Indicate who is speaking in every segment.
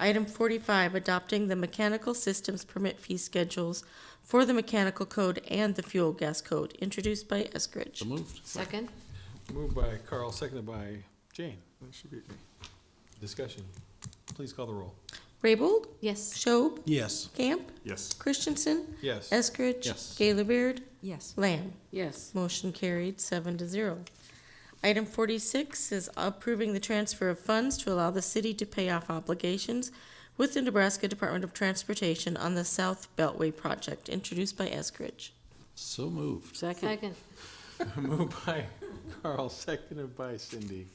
Speaker 1: Item forty-five, adopting the mechanical systems permit fee schedules for the mechanical code and the fuel gas code, introduced by Eskridge.
Speaker 2: So moved.
Speaker 3: Second?
Speaker 4: Moved by Carl, seconded by Jane. She beat me. Discussion. Please call the roll.
Speaker 1: Raybold?
Speaker 3: Yes.
Speaker 1: Schob?
Speaker 5: Yes.
Speaker 1: Camp?
Speaker 2: Yes.
Speaker 1: Christensen?
Speaker 4: Yes.
Speaker 1: Eskridge?
Speaker 2: Yes.
Speaker 1: Gaylor Baird?
Speaker 3: Yes.
Speaker 1: Lamb?
Speaker 3: Yes.
Speaker 1: Motion carried, seven to zero. Item forty-six is approving the transfer of funds to allow the city to pay off obligations with the Nebraska Department of Transportation on the South Beltway Project, introduced by Eskridge.
Speaker 2: So moved.
Speaker 3: Second?
Speaker 4: Moved by Carl, seconded by Cindy.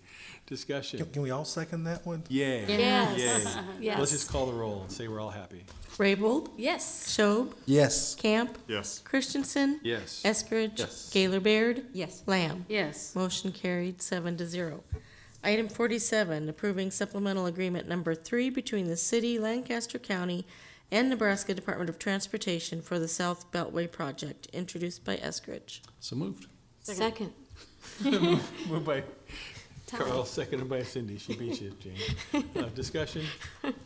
Speaker 4: Discussion.
Speaker 5: Can we all second that one?
Speaker 4: Yay.
Speaker 3: Yes.
Speaker 4: Yay. Let's
Speaker 3: Yes.
Speaker 4: just call the roll and say we're all happy.
Speaker 1: Raybold?
Speaker 3: Yes.
Speaker 1: Schob?
Speaker 5: Yes.
Speaker 1: Camp?
Speaker 2: Yes.
Speaker 1: Christensen?
Speaker 4: Yes.
Speaker 1: Eskridge?
Speaker 2: Yes.
Speaker 1: Gaylor Baird?
Speaker 3: Yes.
Speaker 1: Lamb?
Speaker 3: Yes.
Speaker 1: Motion carried, seven to zero. Item forty-seven, approving supplemental agreement number three between the city, Lancaster County, and Nebraska Department of Transportation for the South Beltway Project, introduced by Eskridge.
Speaker 2: So moved.
Speaker 3: Second?
Speaker 4: Moved by Carl, seconded by Cindy. She beat you, Jane. Uh, Discussion.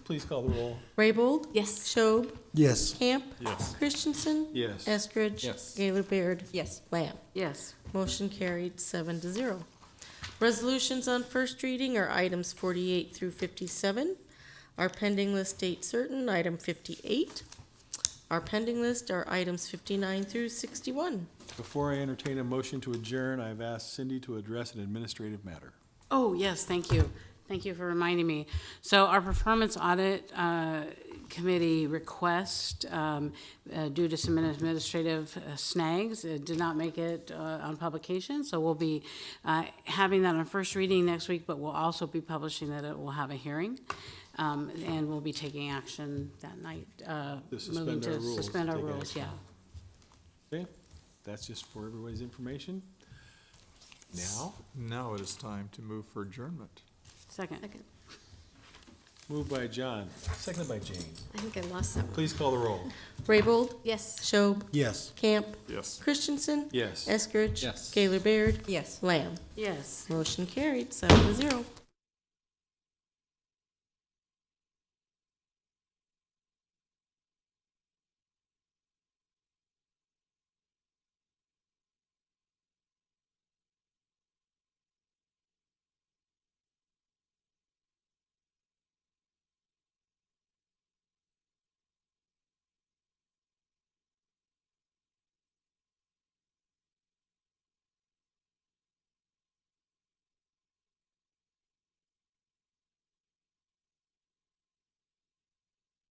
Speaker 4: Please call the roll.
Speaker 1: Raybold?
Speaker 3: Yes.
Speaker 1: Schob?
Speaker 5: Yes.
Speaker 1: Camp?
Speaker 2: Yes.
Speaker 1: Christensen?
Speaker 4: Yes.
Speaker 1: Eskridge?
Speaker 2: Yes.
Speaker 1: Gaylor Baird?
Speaker 3: Yes.
Speaker 1: Lamb?
Speaker 3: Yes.
Speaker 1: Motion carried, seven to zero. Resolutions on first reading are items forty-eight through fifty-seven. Our pending list date certain, item fifty-eight. Our pending list are items fifty-nine through sixty-one.
Speaker 4: Before I entertain a motion to adjourn, I've asked Cindy to address an administrative matter.
Speaker 6: Oh, yes, thank you. Thank you for reminding me. So our performance audit uh, committee request, um, uh, due to some administrative uh, snags, it did not make it uh, on publication, so we'll be uh, having that on first reading next week, but we'll also be publishing that it will have a hearing, um, and we'll be taking action that night. uh,
Speaker 4: To suspend
Speaker 6: moving
Speaker 4: our
Speaker 6: to
Speaker 4: rules,
Speaker 6: Suspend our
Speaker 4: take
Speaker 6: rules,
Speaker 4: action.
Speaker 6: yeah.
Speaker 4: Okay? That's just for everybody's information. Now,
Speaker 7: Now it is time to move for adjournment.
Speaker 6: Second.
Speaker 3: Second.
Speaker 4: moved by John, seconded by Jane.
Speaker 3: I think I lost that one.
Speaker 4: Please call the roll.
Speaker 1: Raybold?
Speaker 3: Yes.
Speaker 1: Schob?
Speaker 5: Yes.
Speaker 1: Camp?
Speaker 2: Yes.
Speaker 1: Christensen?
Speaker 4: Yes.
Speaker 1: Eskridge?
Speaker 2: Yes.
Speaker 1: Gaylor Baird?
Speaker 3: Yes.
Speaker 1: Lamb?
Speaker 6: Yes.
Speaker 1: Motion carried, seven to zero.